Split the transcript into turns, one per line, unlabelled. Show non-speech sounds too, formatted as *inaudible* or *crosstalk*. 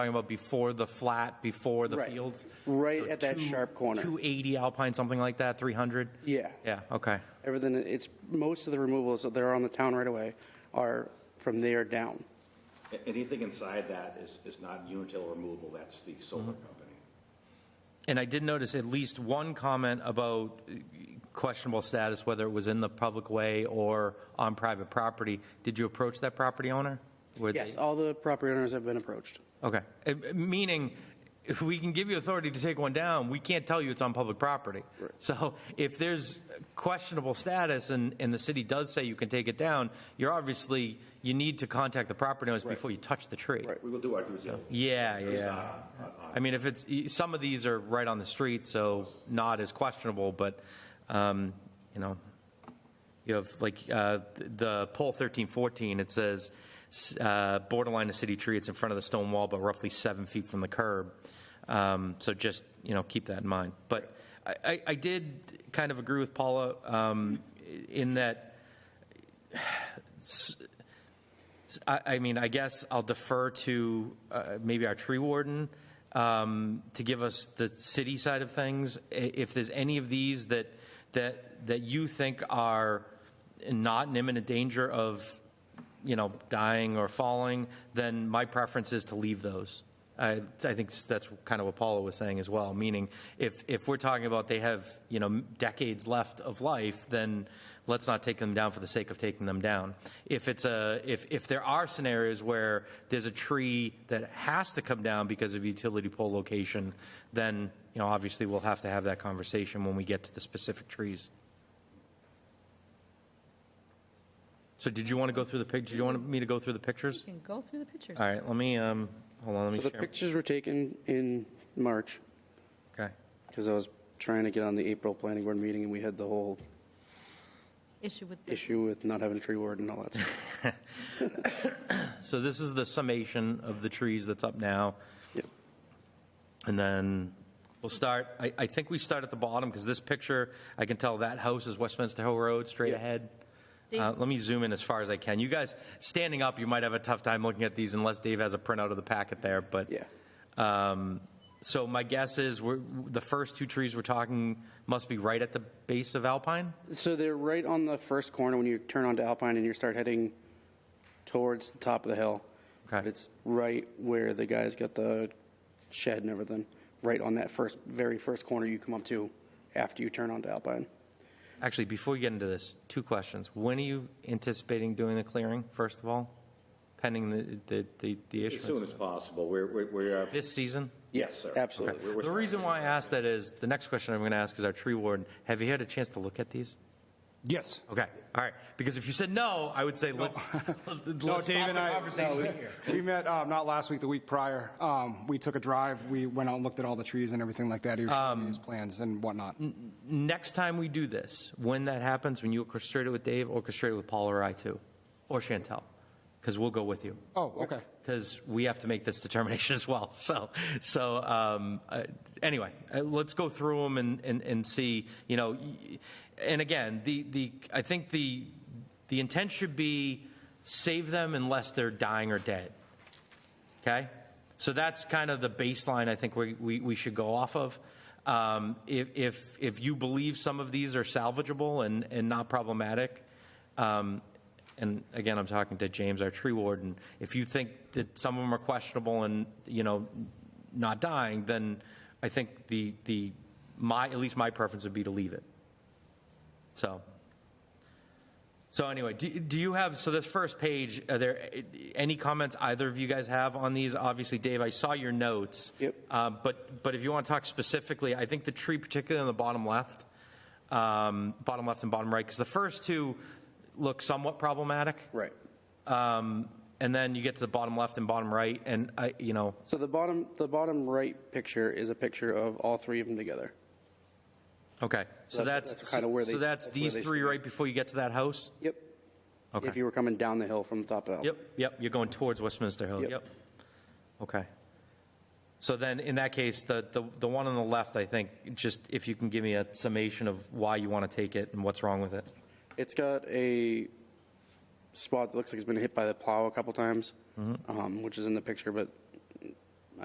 talking about before the flat, before the
Right.
fields?
Right
So
at that
two-
sharp corner.
280 Alpine, something like that, 300?
Yeah.
Yeah, okay.
Everything, it's, most of the removals that are on the town right away are from there down.
A- Anything inside that is, is not Unitil removal, that's the solar company.
And I did notice at least one comment about uh, questionable status, whether it was in the public way or on private property. Did you approach that property owner? Were they-
Yes, all the property owners have been approached.
Okay. Uh, Meaning, if we can give you authority to take one down, we can't tell you it's on public property. So if there's questionable status and, and the city does say you can take it down, you're obviously, you need to contact the property owners before you touch the tree.
Right.
We will do our due diligence.
Yeah, yeah. I mean, if it's, some of these are right on the street, so not as questionable, but, um, you know, you have like uh, the poll thirteen fourteen. It says s- uh, borderline a city tree. It's in front of the stone wall, but roughly seven feet from the curb. Um, so just you know keep that in mind. But I, I, I did kind of agree with Paula um, in that. s- s- I, I mean, I guess I'll defer to uh, maybe our tree warden um, to give us the city side of things. I- If there's any of these that that that you think are not in imminent danger of, you know, dying or falling, then my preference is to leave those. I, I think that's kind of what Paula was saying as well. Meaning, if if we're talking about they have you know decades left of life, then let's not take them down for the sake of taking them down. If it's a if if there are scenarios where there's a tree that has to come down because of utility pole location, then you know obviously we'll have to have that conversation when we get to the specific trees. So did you want to go through the pic? Did you want me to go through the pictures?
You can go through the pictures.
All right, let me um hold on. Let me
So the
share.
pictures were taken in March,
Okay.
because I was trying to get on the April planning board meeting, and we had the whole
Issue with the,
issue with not having a tree ward and all that *laughs* stuff.
So this is the summation of the trees that's up now.
Yep.
And then we'll start, I, I think we start at the bottom because this picture, I can tell that house is Westminster Hill Road, straight
Yeah.
ahead.
Dave-
Uh, let me zoom in as far as I can. You guys, standing up, you might have a tough time looking at these unless Dave has a printout of the packet there, but.
Yeah.
Um, so my guess is we're, the first two trees we're talking must be right at the base of Alpine?
So they're right on the first corner when you turn onto Alpine and you start heading towards the top of the hill.
Okay.
But It's right where the guys got the shed and everything, right on that first, very first corner you come up to after you turn onto Alpine.
Actually, before you get into this, two questions. When are you anticipating doing the clearing, first of all, pending the, the, the, the
As soon as
issuance?
possible, we're, we're- we are,
This season?
yes, sir.
absolutely.
We're- we're-
The reason why I ask that is, the next question I'm going to ask is our tree warden. Have you had a chance to look at these?
Yes.
Okay, all right. Because if you said no, I would say, *laughs* let's,
No,
let's
Dave
stop the
and I,
conversation
no,
here.
we met, um, not last week, the week prior. Um, we took a drive, we went out and looked at all the trees and everything like that. He was showing me his plans and whatnot.
Next time we do this, when that happens, when you orchestrate it with Dave, orchestrate it with Paul or I too, or Chantel, because we'll go with you.
Oh, okay.
because we have to make this determination *laughs* as well. So, so um, uh, anyway, uh, let's go through them and, and, and see. You know, y- and again, the, the I think the the intent should be save them unless they're dying or dead. Okay? So that's kind of the baseline I think we, we, we should go off of. Um, if, if, if you believe some of these are salvageable and, and not problematic, um, and again, I'm talking to James, our tree warden, if you think that some of them are questionable and, you know, not dying, then I think the, the, my, at least my preference would be to leave it. So, so anyway, do, do you have, so this first page, are there any comments either of you guys have on these? Obviously, Dave, I saw your notes.
Yep.
Uh, but, but if you want to talk specifically, I think the tree particularly on the bottom left, um, bottom left and bottom right, because the first two look somewhat problematic.
Right.
Um, and then you get to the bottom left and bottom right, and I, you know,
So the bottom, the bottom right picture is a picture of all three of them together.
okay. So
That's-
that's,
that's kinda where they-
so that's
that's where
these
they
three
stand.
right before you get to that house?
Yep.
Okay.
If you were coming down the hill from the top of Alpine.
Yep, yep, you're going towards Westminster Hill,
Yep.
yep. Okay. So then, in that case, the, the, the one on the left, I think, just if you can give me a summation of why you want to take it and what's wrong with it.
It's got a
Mm-hmm.
spot that looks like it's been hit by the plow a couple times, um, which is in the picture, but